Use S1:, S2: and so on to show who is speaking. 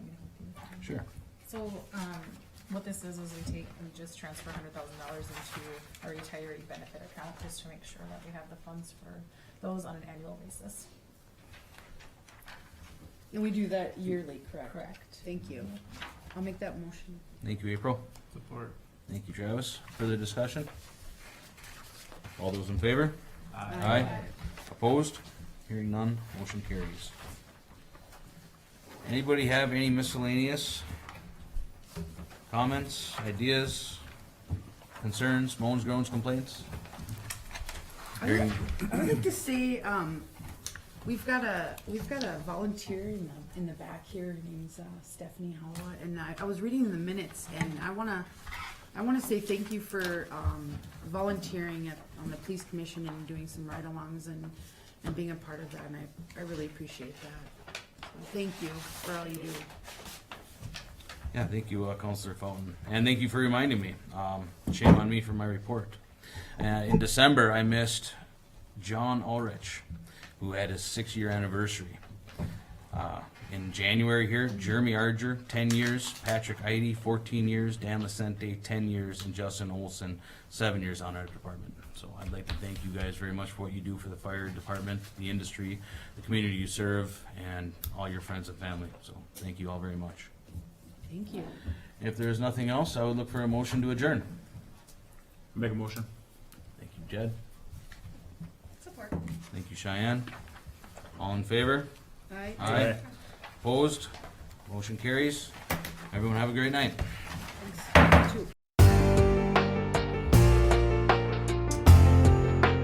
S1: Sure.
S2: So, um, what this is, is we take, we just transfer hundred thousand dollars into our retiree benefit account, just to make sure that we have the funds for those on an annual basis.
S3: And we do that yearly, correct?
S2: Correct.
S3: Thank you. I'll make that motion.
S1: Thank you, April.
S4: Support.
S1: Thank you, Travis. Further discussion? All those in favor? Aye. Opposed? Hearing none, motion carries. Anybody have any miscellaneous comments, ideas, concerns, moans, groans, complaints? Hearing-
S3: I would like to say, um, we've got a, we've got a volunteer in the, in the back here, her name's uh, Stephanie Holla, and I, I was reading the minutes, and I wanna, I wanna say thank you for, um, volunteering at, on the police commission and doing some ride-alongs and, and being a part of that, and I, I really appreciate that. So Thank you for all you do.
S1: Yeah, thank you, uh, Counselor Fountain, and thank you for reminding me. Um, shame on me for my report. Uh, in December, I missed John Ulrich, who had his six-year anniversary. Uh, in January here, Jeremy Arger, ten years, Patrick Idy, fourteen years, Dan Lacente, ten years, and Justin Olson, seven years on our department. So I'd like to thank you guys very much for what you do for the fire department, the industry, the community you serve, and all your friends and family. So thank you all very much.
S3: Thank you.
S1: If there is nothing else, I would look for a motion to adjourn.
S4: Make a motion.
S1: Thank you, Jed.
S2: Support.
S1: Thank you, Cheyenne. All in favor?
S3: All right.
S1: Opposed? Motion carries. Everyone have a great night.